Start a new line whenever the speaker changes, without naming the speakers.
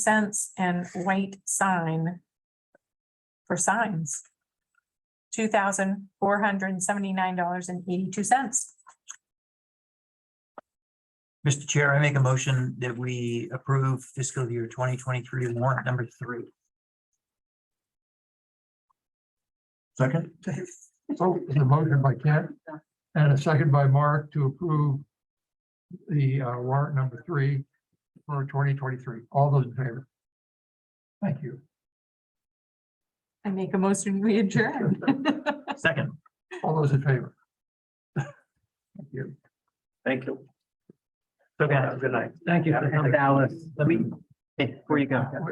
cents and white sign for signs. Two thousand four hundred and seventy-nine dollars and eighty-two cents.
Mr. Chair, I make a motion that we approve fiscal year twenty twenty-three warrant number three.
Second? So the motion by Kent and a second by Mark to approve the uh, warrant number three for twenty twenty-three. All those in favor? Thank you.
I make a motion, we adjourn.
Second.
All those in favor? Thank you.
Thank you. Okay, good night. Thank you. Dallas, let me, hey, before you go.